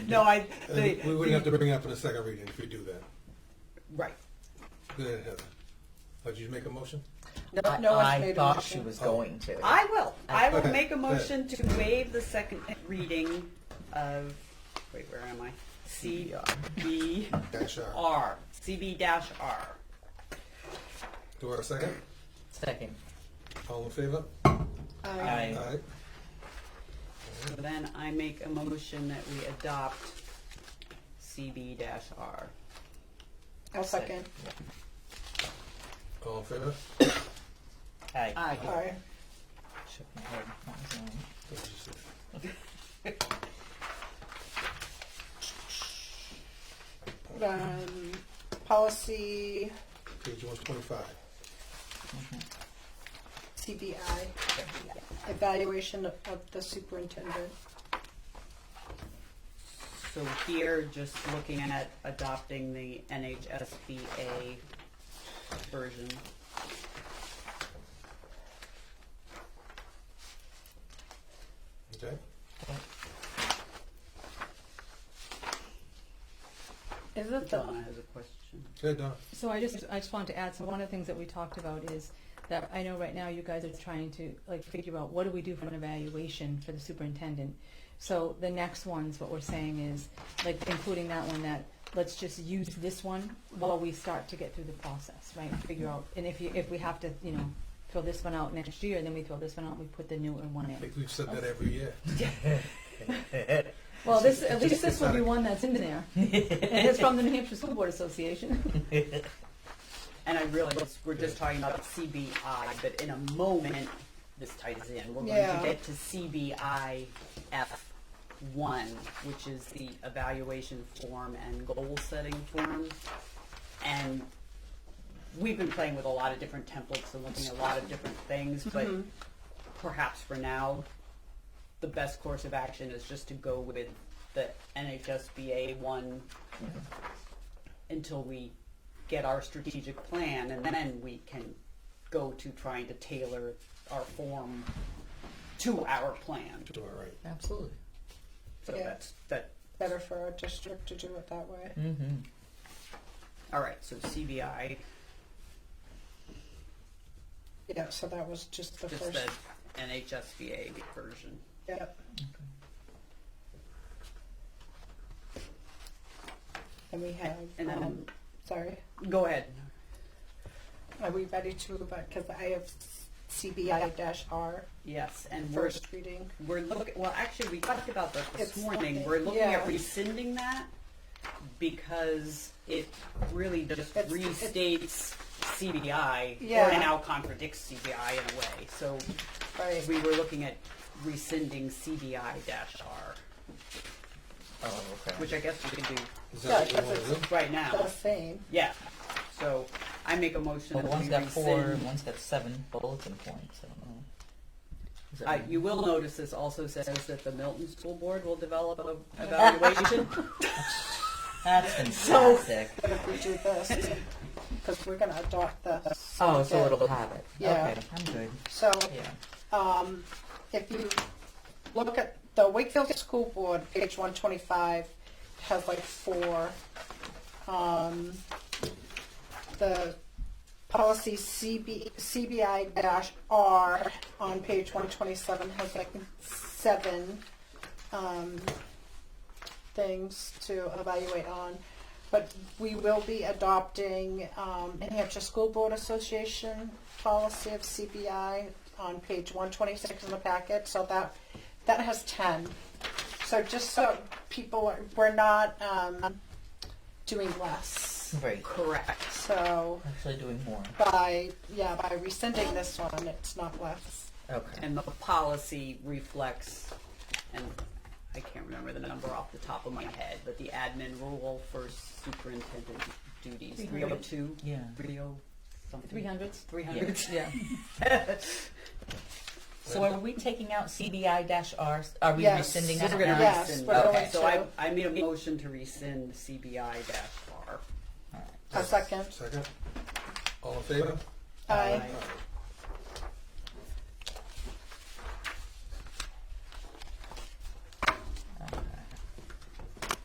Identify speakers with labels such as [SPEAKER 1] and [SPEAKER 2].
[SPEAKER 1] No, I, the,
[SPEAKER 2] And we wouldn't have to bring it up for the second reading if we do that.
[SPEAKER 1] right.
[SPEAKER 2] Go ahead, Heather. Oh, did you make a motion?
[SPEAKER 1] No,
[SPEAKER 3] I,
[SPEAKER 1] no one's
[SPEAKER 3] I
[SPEAKER 1] made a
[SPEAKER 3] thought
[SPEAKER 1] motion.
[SPEAKER 3] she was going to.
[SPEAKER 1] I will. I will
[SPEAKER 2] Okay, Uh,
[SPEAKER 1] make a
[SPEAKER 2] go ahead.
[SPEAKER 1] motion to waive the second reading of, wait, where am I? CB
[SPEAKER 2] Dash R.
[SPEAKER 1] R, CB dash R.
[SPEAKER 2] Do I have a second?
[SPEAKER 3] Second.
[SPEAKER 2] All in favor?
[SPEAKER 1] Oh,
[SPEAKER 3] I,
[SPEAKER 1] Uh,
[SPEAKER 2] Aye.
[SPEAKER 1] So Then I make a motion that we adopt CB dash R.
[SPEAKER 4] I'll second.
[SPEAKER 2] All in favor?
[SPEAKER 3] I,
[SPEAKER 1] Aye.
[SPEAKER 4] Aye.
[SPEAKER 3] shook my head. That was wrong.
[SPEAKER 2] That's just it.
[SPEAKER 4] Um, policy
[SPEAKER 2] Page one twenty-five.
[SPEAKER 4] CBI, evaluation of of the superintendent.
[SPEAKER 1] So here, just looking at adopting the NHSBA version.
[SPEAKER 2] Okay?
[SPEAKER 4] Is it
[SPEAKER 1] Donna
[SPEAKER 4] the,
[SPEAKER 1] has a question.
[SPEAKER 2] Good, Donna.
[SPEAKER 5] So I just, I just wanted to add, so one of the things that we talked about is that I know right now you guys are trying to like figure out what do we do for an evaluation for the superintendent. So the next ones, what we're saying is, like including that one, that let's just use this one while we start to get through the process, right? Figure out, and if you, if we have to, you know, throw this one out next year, then we throw this one out, and we put the newer one
[SPEAKER 2] I
[SPEAKER 5] in.
[SPEAKER 2] think we've said that every year.
[SPEAKER 5] Well, this, at least this will be one that's in there. And it's from the New Hampshire School Board Association.
[SPEAKER 1] And I realize we're just talking about CBI, but in a moment, this ties in. We're going to
[SPEAKER 4] Yeah.
[SPEAKER 1] get to CBI F1, which is the evaluation form and goal setting form. And we've been playing with a lot of different templates and looking at a lot of different things, but perhaps for now, the best course of action is just to go with the NHSBA one until we get our strategic plan, and then we can go to trying to tailor our form to our plan.
[SPEAKER 2] Do all right.
[SPEAKER 3] Absolutely.
[SPEAKER 1] So
[SPEAKER 4] Yeah.
[SPEAKER 1] that's that.
[SPEAKER 4] better for our district to do it that way?
[SPEAKER 3] Mm-hmm.
[SPEAKER 1] All right. So CBI,
[SPEAKER 4] Yeah, so that was just the
[SPEAKER 1] just the
[SPEAKER 4] first,
[SPEAKER 1] NHSBA version.
[SPEAKER 4] yeah. And we have,
[SPEAKER 1] And then-
[SPEAKER 4] um, sorry,
[SPEAKER 1] Go ahead.
[SPEAKER 4] are we ready to, because I have CBI dash R,
[SPEAKER 1] Yes, and we're
[SPEAKER 4] first reading.
[SPEAKER 1] we're looking. Well, actually, we talked about that this
[SPEAKER 4] It's
[SPEAKER 1] morning.
[SPEAKER 4] looking-
[SPEAKER 1] We're looking
[SPEAKER 4] yeah.
[SPEAKER 1] at rescinding that because it really just
[SPEAKER 4] It's- it's-
[SPEAKER 1] restates CBI
[SPEAKER 4] Yeah.
[SPEAKER 1] and now contradicts CBI in a way. So
[SPEAKER 4] Right,
[SPEAKER 1] We were looking at rescinding CBI dash R,
[SPEAKER 3] Oh, okay.
[SPEAKER 1] which I guess we can do
[SPEAKER 2] Is that
[SPEAKER 4] Yeah,
[SPEAKER 2] what you
[SPEAKER 4] that's
[SPEAKER 2] want to do?
[SPEAKER 1] right
[SPEAKER 4] the
[SPEAKER 1] now.
[SPEAKER 4] same,
[SPEAKER 1] Yeah, so I make a motion
[SPEAKER 3] Well,
[SPEAKER 1] that
[SPEAKER 3] one's
[SPEAKER 1] we
[SPEAKER 3] got four,
[SPEAKER 1] rescind.
[SPEAKER 3] one's got seven bulletin points. I don't know. Is that
[SPEAKER 1] Uh,
[SPEAKER 3] right?
[SPEAKER 1] you will notice this also says that the Milton School Board will develop an evaluation.
[SPEAKER 3] That's fantastic.
[SPEAKER 4] if we do this, because we're gonna adopt this.
[SPEAKER 3] oh, so it'll have it.
[SPEAKER 4] Yeah.
[SPEAKER 3] Okay, I'm good.
[SPEAKER 4] So,
[SPEAKER 3] Yeah.
[SPEAKER 4] um, if you look at the Wakefield School Board, page one twenty-five, has like four. Um, the policy CB, CBI dash R on page one twenty-seven has like seven, um, things to evaluate on. But we will be adopting um, New Hampshire School Board Association policy of CBI on page 126 in the packet, so that, that has 10. So just so people, are- we're not um, doing less.
[SPEAKER 3] Great.
[SPEAKER 1] Correct.
[SPEAKER 4] So
[SPEAKER 3] Actually, doing more.
[SPEAKER 4] by, yeah, by rescinding this one, it's not less.
[SPEAKER 3] Okay.
[SPEAKER 1] And the policy reflects, and I can't remember the number off the top of my head, but the admin rule for superintendent duties, three oh two?
[SPEAKER 3] Yeah.
[SPEAKER 1] Three oh something?
[SPEAKER 5] Three hundreds?
[SPEAKER 1] Three hundred.
[SPEAKER 5] Yeah.
[SPEAKER 3] So are we taking out CBI dash R? Are we
[SPEAKER 4] Yes.
[SPEAKER 3] rescinding
[SPEAKER 1] We're
[SPEAKER 3] that?
[SPEAKER 1] gonna
[SPEAKER 3] now?
[SPEAKER 4] Yes,
[SPEAKER 1] rescind.
[SPEAKER 4] we're
[SPEAKER 1] that.
[SPEAKER 4] going
[SPEAKER 1] So I,
[SPEAKER 4] to.
[SPEAKER 1] I made a motion to rescind CBI dash R.
[SPEAKER 4] A second.
[SPEAKER 2] Second. All in favor?
[SPEAKER 4] Aye.
[SPEAKER 2] All right.